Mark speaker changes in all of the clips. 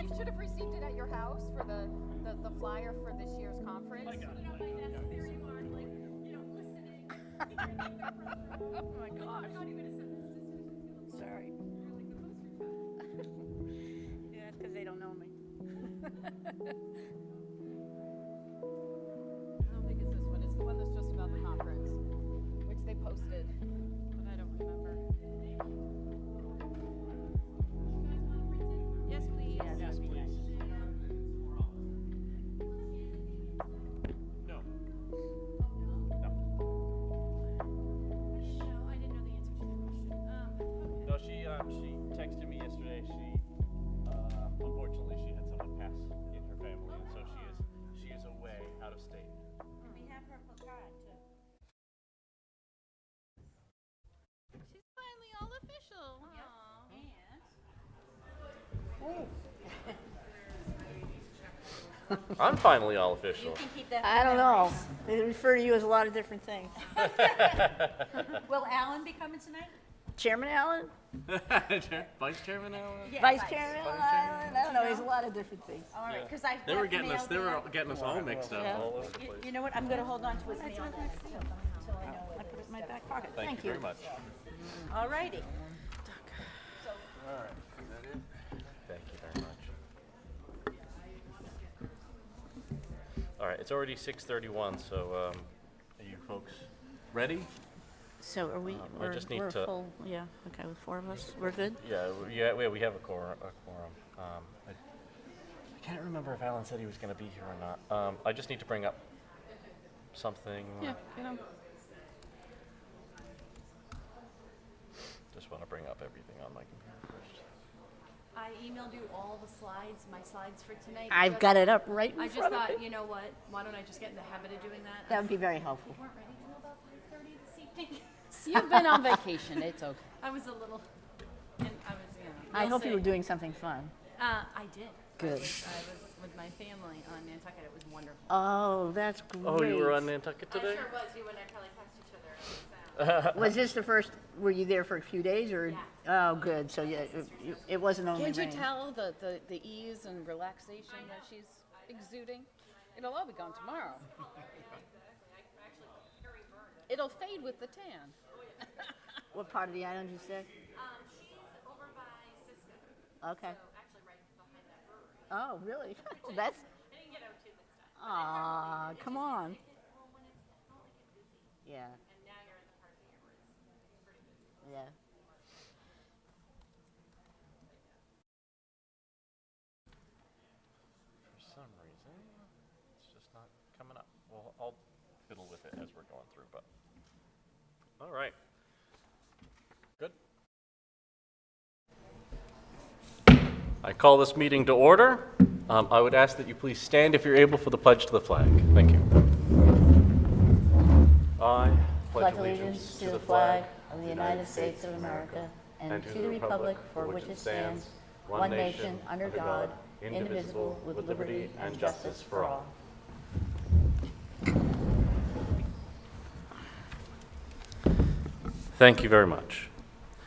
Speaker 1: you did at your house for the, the, the flyer for this year's conference?
Speaker 2: I got it.
Speaker 3: Put up my desk, there you are, like, you know, listening.
Speaker 4: Oh my gosh.
Speaker 3: I'm not even gonna send this to Susan. She's
Speaker 4: Sorry.
Speaker 3: gonna look like the poster child.
Speaker 4: Yeah, that's because they don't know me.
Speaker 1: I don't think it's this one, it's the one that's just about the conference, which they posted, but I don't remember.
Speaker 4: Yes, please.
Speaker 2: Yes, please. No. No,
Speaker 3: I didn't know, I didn't know the answer to the question. Um, okay.
Speaker 2: No, she, um, she texted me yesterday, she, uh, unfortunately, she had someone pass in her family, and so she is, she is away, out of state.
Speaker 5: We have her placard too.
Speaker 4: She's finally all official. Aw.
Speaker 5: And
Speaker 2: I'm finally all official.
Speaker 5: you can keep that.
Speaker 4: I
Speaker 5: for
Speaker 4: don't know.
Speaker 5: memories.
Speaker 4: They refer to you as a lot of different things.
Speaker 5: Will Alan be coming tonight?
Speaker 4: Chairman Allen?
Speaker 2: Vice Chairman Allen?
Speaker 4: Vice Chairman Allen? I don't know, he's a lot of different things.
Speaker 5: All right, because I.
Speaker 6: They were
Speaker 5: left
Speaker 6: getting us.
Speaker 5: mail
Speaker 6: They were
Speaker 5: there.
Speaker 6: getting us all mixed up.
Speaker 4: Yeah.
Speaker 2: All over the
Speaker 5: You-
Speaker 2: place.
Speaker 5: You know what, I'm gonna hold on to his mail then, until I know what
Speaker 4: I
Speaker 5: it
Speaker 4: put it
Speaker 5: is.
Speaker 4: in my back pocket.
Speaker 2: Thank you very much.
Speaker 5: All righty.
Speaker 2: Thank you very much. All right, it's already 6:31, so um, are you folks ready?
Speaker 4: So are we,
Speaker 2: Um, I
Speaker 4: we're
Speaker 2: just need
Speaker 4: we're
Speaker 2: to-
Speaker 4: full, yeah, okay, with four of us, we're good?
Speaker 2: Yeah, w- yeah, we- we have a quorum. A quorum. Um, I, I can't remember if Alan said he was going to be here or not. Um, I just need to bring up something.
Speaker 4: you know.
Speaker 2: Just want to bring up everything on my computer first.
Speaker 3: I emailed you all the slides, my slides for tonight.
Speaker 4: I've
Speaker 3: just-
Speaker 4: got it up right
Speaker 3: I
Speaker 4: in
Speaker 3: just
Speaker 4: front of
Speaker 3: thought,
Speaker 4: me.
Speaker 3: you know what, why don't I just get in the habit of doing that?
Speaker 4: That would be very helpful.
Speaker 3: We weren't ready till about five thirty this evening.
Speaker 7: You've been on vacation, it's okay.
Speaker 3: I was a little, and I was, you know.
Speaker 4: I
Speaker 3: you'll
Speaker 4: hope you were
Speaker 3: see.
Speaker 4: doing something fun.
Speaker 3: Uh, I did. I
Speaker 4: Good.
Speaker 3: was, I was with my family on Nantucket, it was wonderful.
Speaker 4: Oh, that's great.
Speaker 2: Oh, you were on Nantucket today?
Speaker 3: was, you and I probably passed each other.
Speaker 4: Uh-huh. Was this the first, were you there for a few days or? Oh, good, so yeah, it- it wasn't only
Speaker 7: Can't you
Speaker 4: rain.
Speaker 7: tell the, the, the ease and relaxation that she's exuding? It'll all be gone tomorrow. It'll fade with the tan.
Speaker 4: What part of the island you said?
Speaker 3: Um, she's over by Cisco,
Speaker 4: Okay.
Speaker 3: actually right behind that brewery.
Speaker 4: Oh, really? That's,
Speaker 3: I didn't get out to this time.
Speaker 4: aw, come on.
Speaker 3: Well, when it's, I don't like it busy,
Speaker 4: Yeah,
Speaker 3: and now you're in the part of the year where it's pretty busy.
Speaker 4: yeah.
Speaker 2: For some reason, it's just not coming up. Well, I'll fiddle with it as we're going through, but. All right. Good. I call this meeting to order. Um, I would ask that you please stand if you're able for the pledge to the flag. Thank you. I
Speaker 8: pledge allegiance to the flag of the United States of America and to the republic for which it stands, one nation, under God, indivisible, with liberty and justice for all.
Speaker 2: Thank you very much.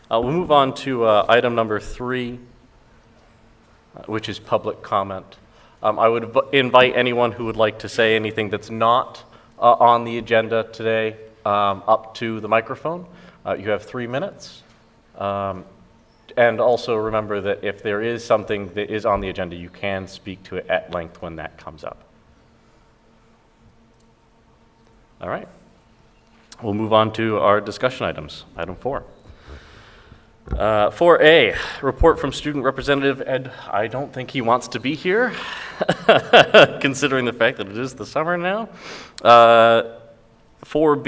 Speaker 2: Uh, We'll move on to uh, item number three, uh, which is public comment. Um, I would v- invite anyone who would like to say anything that's not uh, on the agenda today um, up to the microphone. Uh, You have three minutes. Um, And also remember that if there is something that is on the agenda, you can speak to it at length when that comes up. All right. We'll move on to our discussion items. Item four. Uh, 4A, report from student representative Ed. I don't think he wants to be here, considering the fact that it is the summer now. Uh, 4B,